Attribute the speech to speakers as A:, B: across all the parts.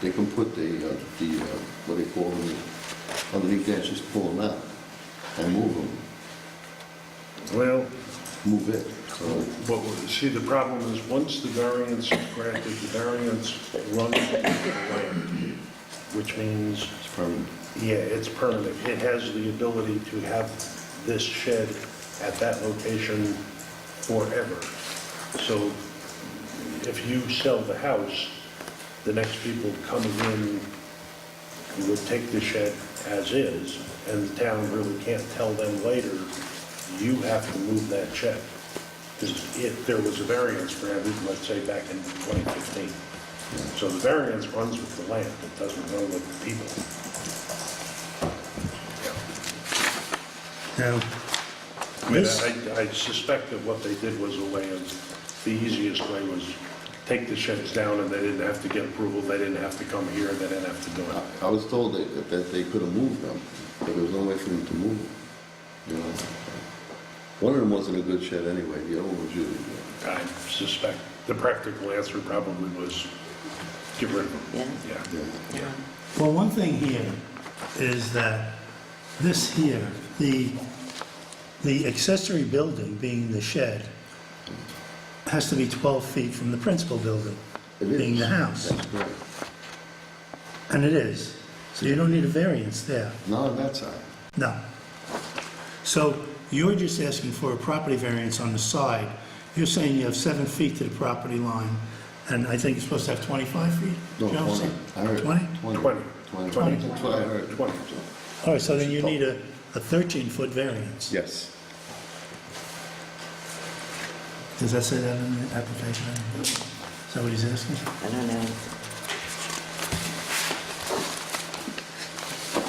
A: they can put the, uh, the, uh, what do you call them, underneath there, just pull them out and move them,
B: Well,
A: move it. So
B: what, we- see, the problem is, once the variance is granted, the variance runs the land, which means,
A: it's permanent.
B: yeah, it's permanent. It has the ability to have this shed at that location forever. So if you sell the house, the next people coming in would take the shed as is, and the town really can't tell them later, you have to move that shed. Because if there was a variance granted, let's say back in 2015. So the variance runs with the land, it doesn't run with the people.
C: Now,
B: I mean,
C: This-
B: I I suspect that what they did was a way of, the easiest way was take the sheds down, and they didn't have to get approval, they didn't have to come here, they didn't have to do it.
A: I was told that, that they could have moved them, but there was no way for them to move them, you know? One of them wasn't a good shed anyway, the other one was really good.
B: I suspect the practical answer probably was get rid of them. Yeah.
A: Yeah.
C: well, one thing here is that this here, the, the accessory building being the shed, has to be 12 feet from the principal building,
A: It is.
C: being the house.
A: That's correct.
C: And it is. So you don't need a variance there.
A: Not on that side.
C: No. So you're just asking for a property variance on the side. You're saying you have seven feet to the property line, and I think you're supposed to have 25 feet?
A: No,
C: Joe, is
A: 20.
C: it?
A: I heard
C: 20?
B: 20.
A: Twenty.
B: 20.
A: That's what I heard.
B: 20.
C: All right, so then you need a 13-foot variance.
A: Yes.
C: Does that say that in the application? Is that what he's asking?
D: I don't know.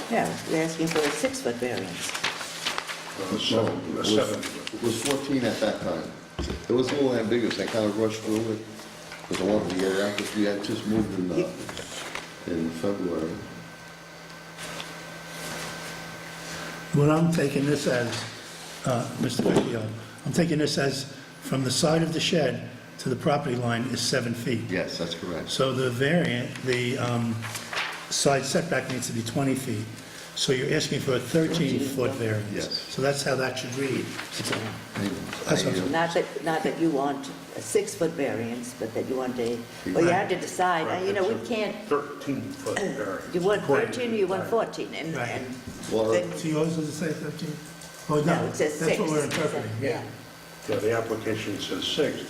D: Yeah, they're asking for a six-foot variance.
B: Uh,
A: No,
B: seven-
A: it
B: uh,
A: was-
B: Seven.
A: It was 14 at that time. It was a little ambiguous, I kind of rushed through it, because I wanted to get it out, because we had just moved in, uh, in February.
C: What I'm taking this as, uh, Mr. Vecchio, I'm taking this as from the side of the shed to the property line is seven feet.
A: Yes, that's correct.
C: So the variant, the um, side setback needs to be 20 feet. So you're asking for a 13-foot variance.
A: Yes.
C: So that's how that should read. That's what I'm-
A: I, uh,
D: Not that, not that you want a six-foot variance, but that you want a, well, you have to decide, uh, you know, we can't,
B: 13-foot variance.
D: you want 13 or you want 14, and,
C: Right.
D: and
A: Well,
C: So
D: then,
C: yours does it say 13? Oh,
D: no,
C: no,
D: it says
C: that's
D: six.
C: what we're interpreting.
D: Yeah.
B: Yeah, the application says six,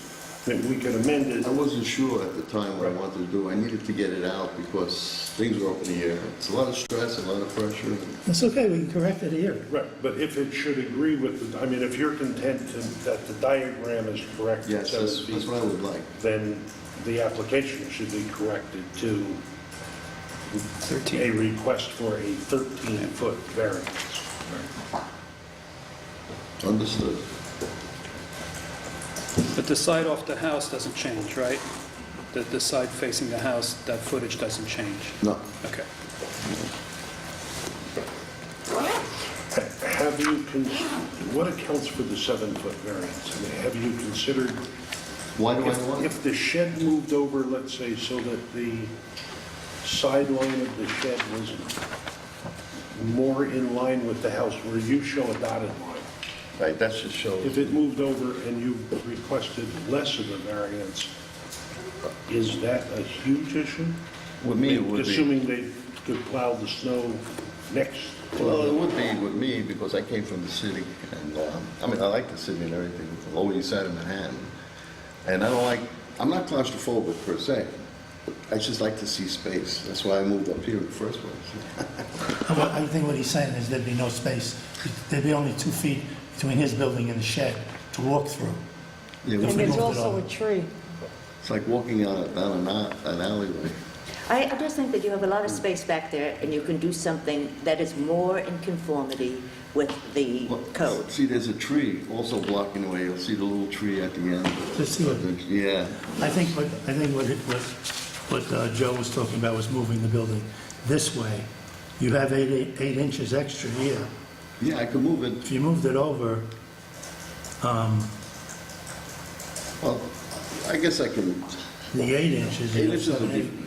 B: then we could amend it.
A: I wasn't sure at the time what I
B: Right.
A: wanted to do, I needed to get it out, because things were up in the air. It's a lot of stress, a lot of pressure.
C: That's okay, we can correct it here.
B: Right, but if it should agree with, the I mean, if you're content to- that the diagram is correct at
A: Yes, that's,
B: seven
A: that's what
B: feet,
A: I would like.
B: then the application should be corrected to a request for a 13-foot variance.
A: Understood.
E: But the side off the house doesn't change, right? The, the side facing the house, that footage doesn't change?
A: No,
E: Okay.
B: Have you, con- what accounts for the seven-foot variance? I mean, have you considered
A: why do I
B: If
A: want it?
B: if the shed moved over, let's say, so that the sideline of the shed was more in line with the house, where you show a dotted line,
A: Right, that should show.
B: if it moved over and you requested less of a variance, is that a huge issue?
A: With me, it would be.
B: Assuming they could plow the snow next to
A: Well, it
B: the...
A: would be with me because I came from the city and, um, I mean, I like the city and everything, the Lower East Side of Manhattan. And I don't like, I'm not claustrophobic per se. I just like to see space. That's why I moved up here in the first place.
C: I wa- I think what he's saying is there'd be no space. There'd be only two feet between his building and the shed to walk through.
A: You
C: And
F: And
A: know,
C: it's
F: there's
C: also
F: also
C: a
F: a tree.
A: It's like walking on a- down an a- an alleyway.
D: I, I just think that you have a lot of space back there, and you can do something that is more in conformity with the
A: Well,
D: code.
A: See, there's a tree also blocking the way. You'll see the little tree at the end.
C: Just see what-
A: Yeah,
C: I think what, I think what, it- what, what uh, Joe was talking about was moving the building this way. You have eight, eight- eight inches extra here.
A: yeah, I could move it
C: If you moved it over,
A: Well, I guess I can,
C: the eight inches.
A: eight
C: you know,
A: inches would
C: seven,
A: be,
C: eight-